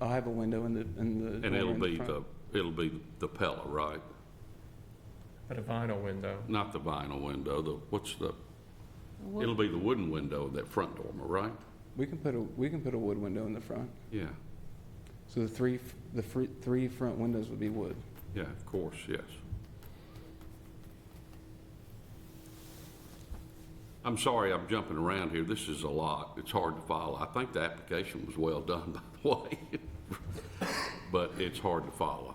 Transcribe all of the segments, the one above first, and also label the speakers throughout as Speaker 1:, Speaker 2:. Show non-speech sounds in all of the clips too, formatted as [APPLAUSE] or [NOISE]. Speaker 1: I'll have a window in the, in the. door
Speaker 2: And it'll
Speaker 1: in
Speaker 2: be
Speaker 1: front.
Speaker 2: the, it'll be the Pella, right?
Speaker 3: But a vinyl window.
Speaker 2: Not the vinyl window, the, what's the, it'll be the wooden window, that front dormer, right?
Speaker 1: We can put a, we can put a wood window in the front.
Speaker 2: Yeah,
Speaker 1: So the three, f- the fr- three front windows would be wood.
Speaker 2: yeah, of course, yes. I'm sorry, I'm jumping around here. This is a lot. It's hard to follow. I think the application was well done, [LAUGHS] by the way. But it's hard to follow.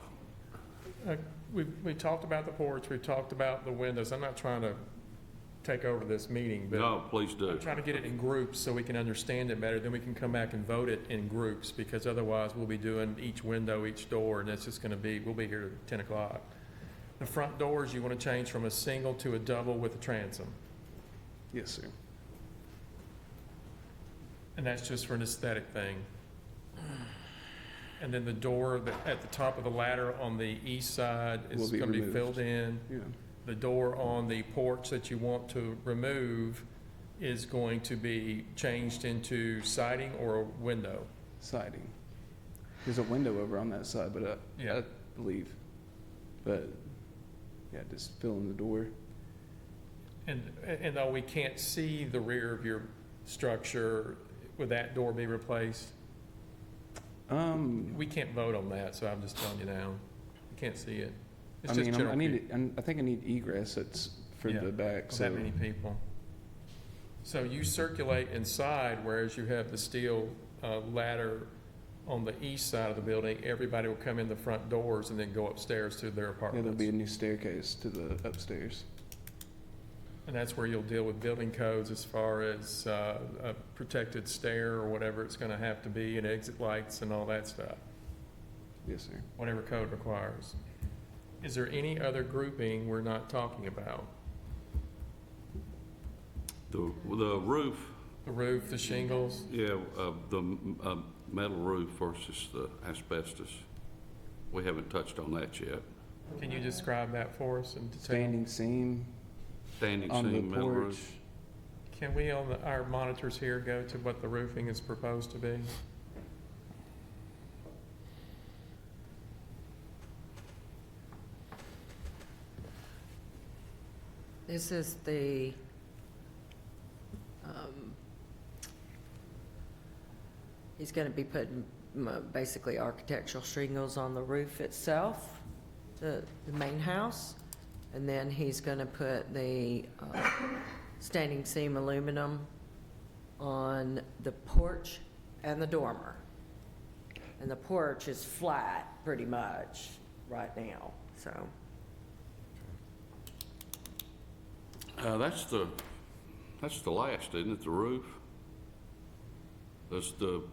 Speaker 3: Uh, We, we talked about the porch, we talked about the windows. I'm not trying to take over this meeting, but
Speaker 2: No, please do.
Speaker 3: I'm trying to get it in groups so we can understand it better. Then we can come back and vote it in groups, because otherwise we'll be doing each window, each door, and it's just gonna be, we'll be here till ten o'clock. The front doors, you wanna change from a single to a double with a transom.
Speaker 1: Yes, sir.
Speaker 3: And that's just for an aesthetic thing. And then the door that- at the top of the ladder on the east side
Speaker 1: Will
Speaker 3: is
Speaker 1: be
Speaker 3: gonna be
Speaker 1: removed.
Speaker 3: filled in.
Speaker 1: Yeah.
Speaker 3: the door on the porch that you want to remove is going to be changed into siding or a window.
Speaker 1: Siding. There's a window over on that side, but I, I
Speaker 3: Yeah.
Speaker 1: believe. But, yeah, just fill in the door.
Speaker 3: And, and though we can't see the rear of your structure, would that door be replaced?
Speaker 1: Um,
Speaker 3: We can't vote on that, so I'm just telling you now. You can't see it. It's
Speaker 1: I
Speaker 3: just
Speaker 1: mean, I'm- I
Speaker 3: general
Speaker 1: need,
Speaker 3: view.
Speaker 1: it- I'm- I think I need egress that's for
Speaker 3: Yeah,
Speaker 1: the back,
Speaker 3: Of
Speaker 1: so.
Speaker 3: That many people. So you circulate inside, whereas you have the steel uh, ladder on the east side of the building. Everybody will come in the front doors and then go upstairs to their
Speaker 1: Yeah, there'll be a
Speaker 3: apartments.
Speaker 1: new staircase to the upstairs.
Speaker 3: And that's where you'll deal with building codes as far as uh, a protected stair or whatever it's going to have to be and exit lights and all that stuff,
Speaker 1: Yes, sir.
Speaker 3: whatever code requires. Is there any other grouping we're not talking about?
Speaker 2: The, the roof,
Speaker 3: The roof, the shingles?
Speaker 2: Yeah, uh, the m- uh, metal roof versus the asbestos. We haven't touched on that yet.
Speaker 3: Can you describe that for us in detail?
Speaker 1: Standing seam
Speaker 2: Standing
Speaker 1: on
Speaker 2: seam
Speaker 1: the
Speaker 2: metal
Speaker 1: porch.
Speaker 2: roof.
Speaker 3: Can we, on the- our monitors here, go to what the roofing is proposed to be?
Speaker 4: This is the, um, he's going to be putting m- basically architectural shingles on the roof itself, the, the main house, and then he's going to put the uh, standing seam aluminum on the porch and the dormer. And the porch is flat, pretty much, right now, so.
Speaker 2: Uh, That's the, that's the last, isn't it, the roof? That's the,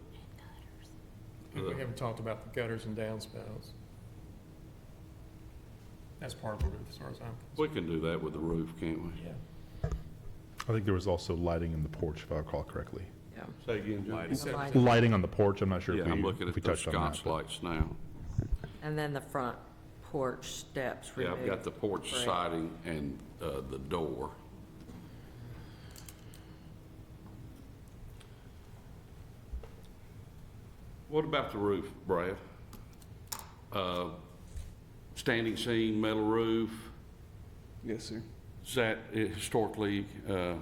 Speaker 3: And We haven't talked about the gutters and downspouts. That's part of the roof, as far as I'm
Speaker 2: we can do that with the roof, can't we?
Speaker 3: concerned. Yeah.
Speaker 5: I think there was also lighting in the porch, if I recall correctly.
Speaker 4: Yeah.
Speaker 2: Say again,
Speaker 3: He said-
Speaker 4: Lighting.
Speaker 5: Lighting on the porch, I'm not sure
Speaker 2: Yeah,
Speaker 5: if we,
Speaker 2: I'm looking
Speaker 5: if
Speaker 2: at
Speaker 5: we
Speaker 2: those
Speaker 5: touched on that.
Speaker 2: sconce lights now.
Speaker 4: And then the front porch steps
Speaker 2: Yeah,
Speaker 4: removed.
Speaker 2: I've got the porch
Speaker 4: Right.
Speaker 2: siding and uh, the door. What about the roof, Brad? Uh, Standing seam, metal roof,
Speaker 1: Yes, sir.
Speaker 2: is that historically, uh,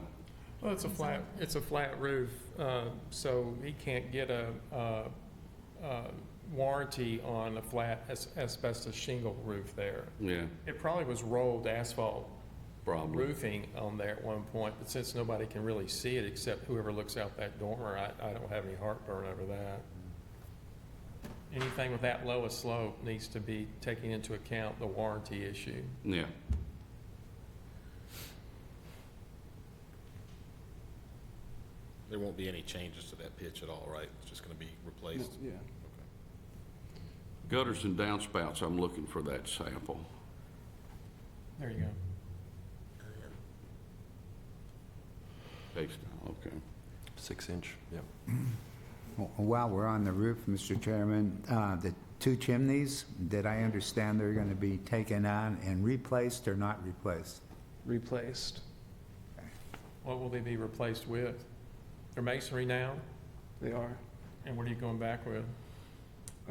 Speaker 3: Well, it's a flat, it's a flat roof, uh, so he can't get a uh, uh, warranty on a flat as- asbestos shingle roof there.
Speaker 2: yeah,
Speaker 3: It probably was rolled asphalt
Speaker 2: probably.
Speaker 3: roofing on there at one point, but since nobody can really see it except whoever looks out that dormer, I, I don't have any heartburn over that. Anything with that low a slope needs to be taking into account the warranty issue.
Speaker 2: Yeah.
Speaker 6: There won't be any changes to that pitch at all, right? It's just going to be
Speaker 1: No,
Speaker 6: replaced?
Speaker 1: Yeah.
Speaker 2: Gutters and downspouts, I'm looking for that sample.
Speaker 3: There you go.
Speaker 2: Based on- Okay.
Speaker 7: Six inch, yeah.
Speaker 8: While we're on the roof, Mr. Chairman, uh, the two chimneys, did I understand they're going to be taken on and replaced or not replaced?
Speaker 1: Replaced.
Speaker 3: What will they be replaced with? They're masonry now,
Speaker 1: They are.
Speaker 3: and what are you going back with?